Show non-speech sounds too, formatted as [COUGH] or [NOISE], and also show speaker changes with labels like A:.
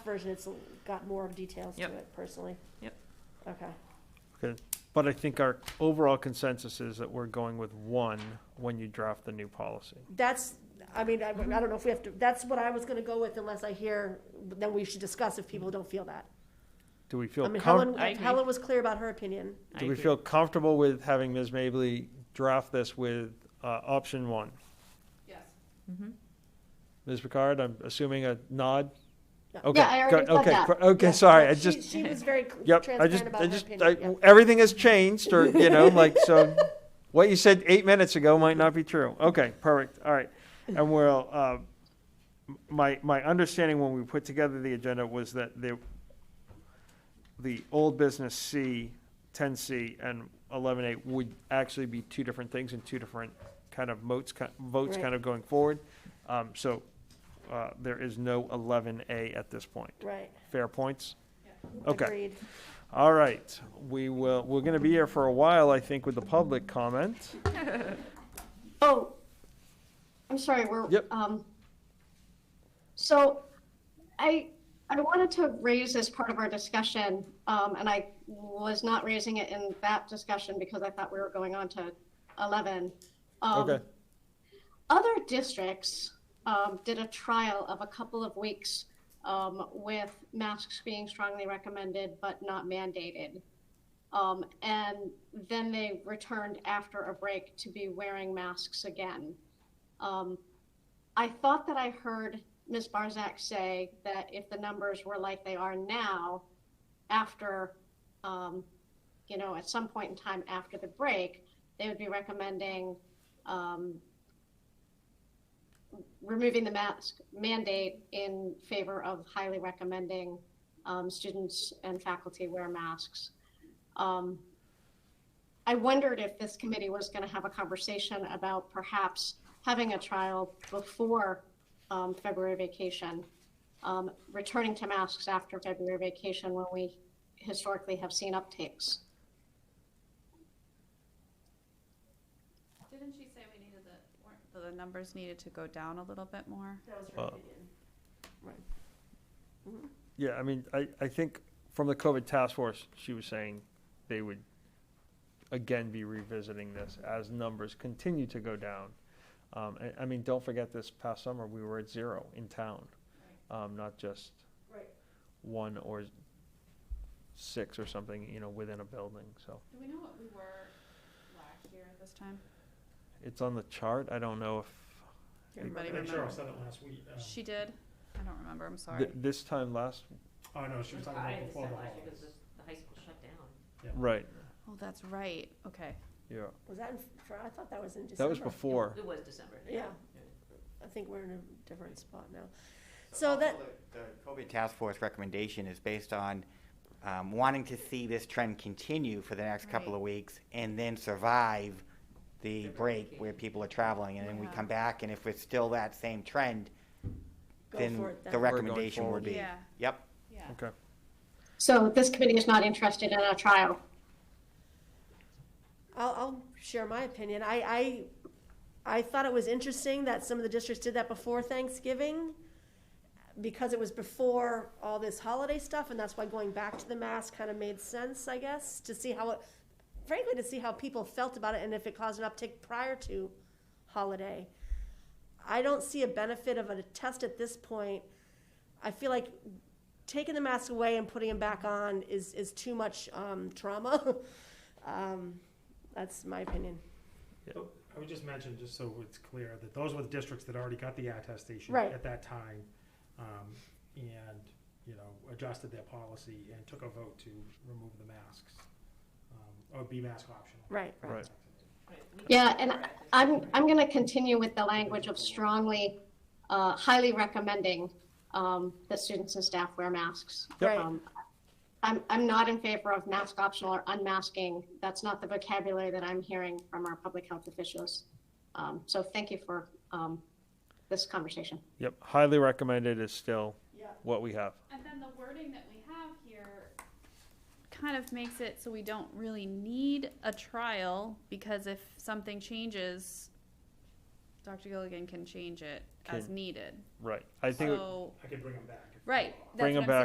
A: version, it's got more details to
B: Yep.
A: it personally.
B: Yep.
A: Okay,
C: But I think our overall consensus is that we're going with one when you draft the new policy.
A: that's, I mean, I, I don't know if we have to, that's what I was gonna go with unless I hear, then we should discuss if people don't feel that.
C: Do we feel
A: I mean,
C: com-
A: Helen,
B: I agree.
A: Helen was clear about her opinion.
B: I
C: do we
B: agree.
C: feel comfortable with having Ms. Mably draft this with uh, option one?
D: Yes.
A: Mm-hmm.
C: Ms. Picard, I'm assuming a nod.
A: Yeah.
C: Okay,
D: Yeah, I already
C: good,
D: said
C: okay,
D: that.
C: cor- okay.
A: Yeah,
C: Sorry,
A: yeah,
C: I
A: she-
C: just
A: She was very cl-
C: yep. I just
A: transparent about
C: I
A: her
C: just I,
A: opinion,
C: everything has changed, or you know,
A: [LAUGHS]
C: like so. What you said eight minutes ago might not be true. Okay, perfect. All right, and we'll. Uh, m- my my understanding when we put together the agenda was that the the old business C, 10C, and 11A would actually be two different things and two different kind of motes, ki- votes
A: Right.
C: kind of going forward. Um, so uh, there is no 11A at this point.
A: yeah. Right,
C: Fair points? Okay,
A: agreed.
C: all right. We will, we're going to be here for a while, I think, with the public comment.
D: Oh, I'm sorry, we're,
C: Yep.
D: um, so I, I wanted to raise this part of our discussion, um, and I was not raising it in that discussion because I thought we were going on to 11. Um,
C: Okay.
D: Other districts, um, did a trial of a couple of weeks, um, with masks being strongly recommended but not mandated. Um, and then they returned after a break to be wearing masks again. Um, I thought that I heard Ms. Barzak say that if the numbers were like they are now, after, um, you know, at some point in time after the break, they would be recommending um, removing the mask mandate in favor of highly recommending um, students and faculty wear masks. Um, I wondered if this committee was going to have a conversation about perhaps having a trial before um, February vacation, um, returning to masks after February vacation when we historically have seen uptakes.
E: Didn't she say we needed the, weren't the- the numbers needed to go down a little bit more?
A: That was
C: Uh,
A: her opinion.
C: Yeah, I mean, I, I think from the COVID task force, she was saying they would again be revisiting this as numbers continue to go down. Um, I, I mean, don't forget this past summer, we were at zero in town, um, not just
A: Right.
C: one or six or something, you know, within a building. So
E: Do we know what we were last year at this time?
C: it's on the chart. I don't know if
E: Everybody
F: I'm sure I
E: remember?
F: said it last week. uh,
E: She did? I don't remember, I'm sorry.
C: th- this time last,
F: Oh, no, she was talking about before the
G: last year
F: holidays.
G: because the high school shut down.
C: right,
E: Oh, that's right, okay.
C: yeah.
A: Was that in, fr- I thought that was in December.
C: That was before.
G: It was December.
A: Yeah, I think we're in a different spot now. So that,
H: also The the COVID task force recommendation is based on um, wanting to see this trend continue for the next couple
E: Right.
H: of weeks and then survive the break where people are traveling and then we
E: Yeah.
H: come back and if it's still that same trend,
A: Go
H: then
A: for it then.
H: the
A: We're
C: going
H: recommendation
C: forward.
H: would be,
E: Yeah.
H: yep.
E: Yeah.
C: Okay.
D: So this committee is not interested in a trial.
A: I'll, I'll share my opinion. I, I, I thought it was interesting that some of the districts did that before Thanksgiving because it was before all this holiday stuff, and that's why going back to the mask kind of made sense, I guess, to see how, it, frankly, to see how people felt about it and if it caused an uptick prior to holiday. I don't see a benefit of a test at this point. I feel like taking the mask away and putting them back on is, is too much um, trauma. [LAUGHS] um, that's my opinion.
F: So, I would just mention, just so it's clear, that those were the districts that already got the attestation
A: Right.
F: at that time. um, And, you know, adjusted their policy and took a vote to remove the masks, um, or be mask optional.
A: Right, right.
C: Right.
D: Yeah, and I'm, I'm going to continue with the language of strongly, uh, highly recommending um, that students and staff wear masks.
A: Yep.
D: Um, I'm, I'm not in favor of mask optional or unmasking. That's not the vocabulary that I'm hearing from our public health officials. Um, So thank you for um, this conversation.
C: Yep. Highly recommended is still
A: Yeah.
C: what we have.
E: And then the wording that we have here kind of makes it so we don't really need a trial, because if something changes, Dr. Gilligan can change it as
C: Can-
E: needed.
C: Right. I think. it-
E: So,
F: I could bring them back. Right. that's
E: Bring
F: what
E: 'em
F: I'm
E: back.